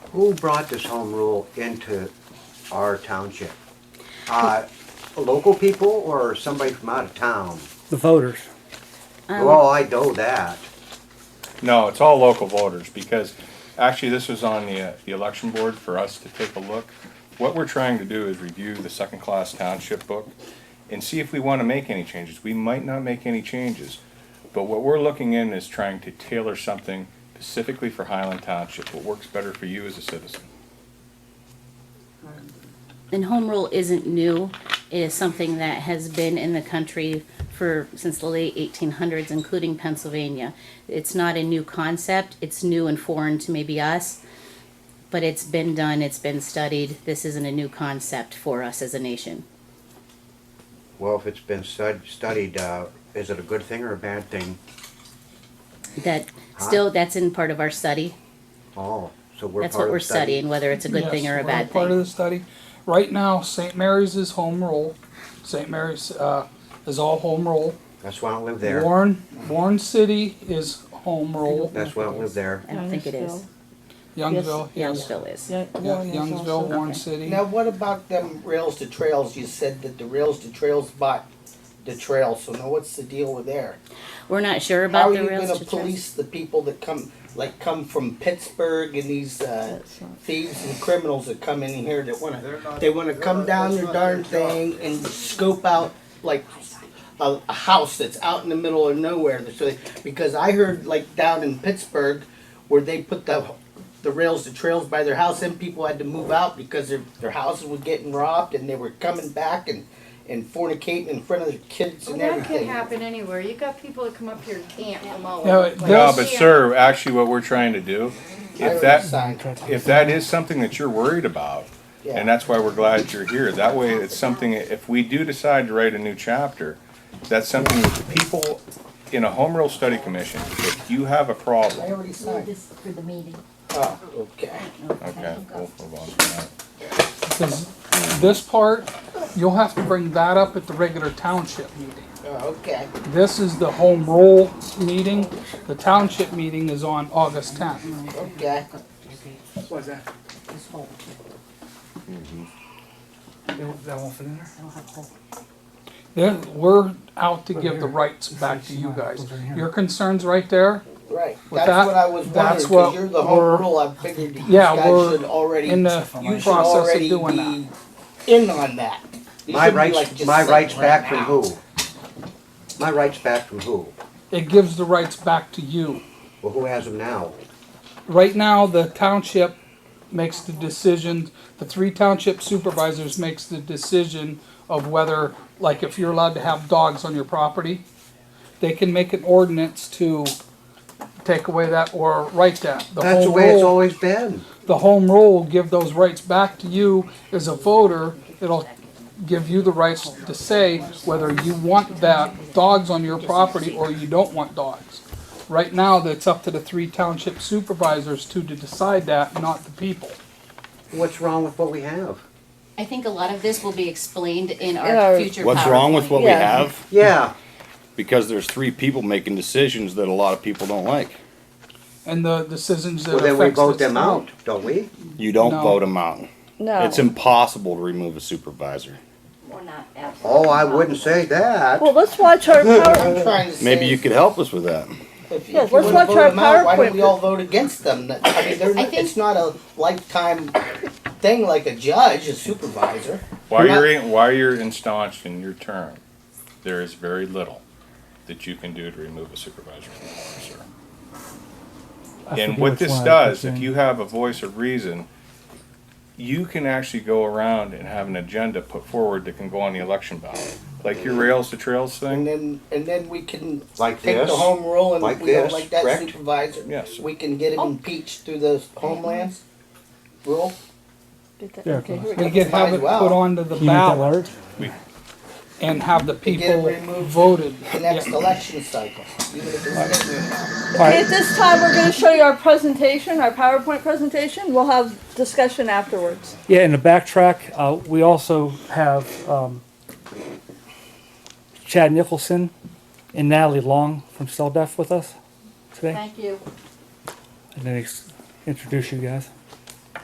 Who brought this home rule into our township? Uh, Local people or somebody from out of town? the voters. Um, Well, I know that. No, it's all local voters, because actually, this was on the, uh, the election board for us to take a look. What we're trying to do is review the second-class township book and see if we wanna make any changes. We might not make any changes, but what we're looking in is trying to tailor something specifically for Highland Township, what works better for you as a citizen. And home rule isn't new. It is something that has been in the country for, since the late eighteen hundreds, including Pennsylvania. It's not a new concept. It's new and foreign to maybe us. But it's been done, it's been studied. This isn't a new concept for us as a nation. Well, if it's been stud- studied, uh, is it a good thing or a bad thing? That, still, that's in part of our study. Oh, so we're That's part what of we're the study. studying, whether it's a good Yes, thing or a we're bad Part of thing. the study. Right now, St. Mary's is home rule. St. Mary's uh, is all home rule. That's why I don't live there. Warren, Warren City is home rule. That's why I don't live there. I don't think it is. Youngsville, yes. Youngsville is. Yeah, Yeah, Warren is Youngsville, also- Warren Okay. City. Now, what about them rails to trails? You said that the rails to trails bought the trails, so now what's the deal with there? We're not sure How about are the you rails gonna to trails. police the people that come, like, come from Pittsburgh and these, uh, That's not- thieves and criminals that come in here that wanna, they wanna come down your darn thing and scope out, like, a, a house that's out in the middle of nowhere, so, they- because I heard, like, down in Pittsburgh, where they put the, the rails to trails by their house, and people had to move out because their, their houses were getting robbed, and they were coming back and, and fornicating in front of their kids Well, and that could everything. happen anywhere. You got people that come up here and camp from all Yeah, over. the but place. No, Yes. but sir, actually, what we're trying to do, I heard if a that, sign. if that is something that you're worried about, Yeah. And that's why we're glad you're here. That way, it's something, if we do decide to write a new chapter, that's something that the people in a home rule study commission, if you have a I problem, already signed. This for the meeting. Oh, okay. okay, we'll move on from that. Because this part, you'll have to bring that up at the regular township meeting. Oh, okay. This is the home rule meeting. The township meeting is on August tenth. Okay. What's that? This whole, Mm-hmm. They won't- That won't fit in there? I don't have a whole. Then we're out to give the rights back to you guys. Your concerns right there, Right. With That's that- what I was wondering, that's because what you're the we're- home rule. I figured that you Yeah, guys we're should already, in the you should process of already doing be in on that. You My shouldn't be, like, rights, just my sitting rights right back from now. who? My rights back from who? it gives the rights back to you. Well, who has them now? Right now, the township makes the decision, the three township supervisors makes the decision of whether, like, if you're allowed to have dogs on your property, they can make an ordinance to take away that or write that. That's the home way it's rule- always been. the home rule will give those rights back to you as a voter. It'll give you the rights to say whether you want that dogs on your property or you don't want dogs. Right now, that's up to the three township supervisors to, to decide that, not the people. What's wrong with what we have? I think a lot of this will be explained in In our our- future PowerPoint. What's wrong with what we Yeah. have? Yeah, Because there's three people making decisions that a lot of people don't like. And the decisions that well, affects. then we the vote them town. out, don't we? You don't No. vote them out. No. It's impossible to remove a supervisor. We're not absolutely. Oh, I wouldn't say that. Well, let's watch our power, I'm trying to say. Maybe you could help us with that. If you, Yes, if you let's wanna watch vote our them out, why don't we PowerPoint. all vote against them? That- I mean, they're, I not- think- it's not a lifetime thing like a judge, a supervisor. While you're, in- while you're instaunched in your term, there is very little that you can do to remove a supervisor from the board, sir. And what this does, if you have a voice of reason, you can actually go around and have an agenda put forward that can go on the election ballot. Like your rails to trails And thing, then, and then we can Like take this? the home rule and Like if we don't this, like that correct? supervisor. Yes. We can get him Oh. impeached through the homeland rule. okay, here we We go. could have it Might as put well. onto Can the you make that ballot large? and have the get it people removed. voted. the next Yeah. election cycle. Even if it's next year. Okay, at this time, we're gonna show you our presentation, our PowerPoint presentation. We'll have discussion afterwards. Yeah, and the backtrack, uh, we also have, um, Chad Nicholson and Natalie Long from Cell Def with us today. Thank you. And then ex- introduce you guys.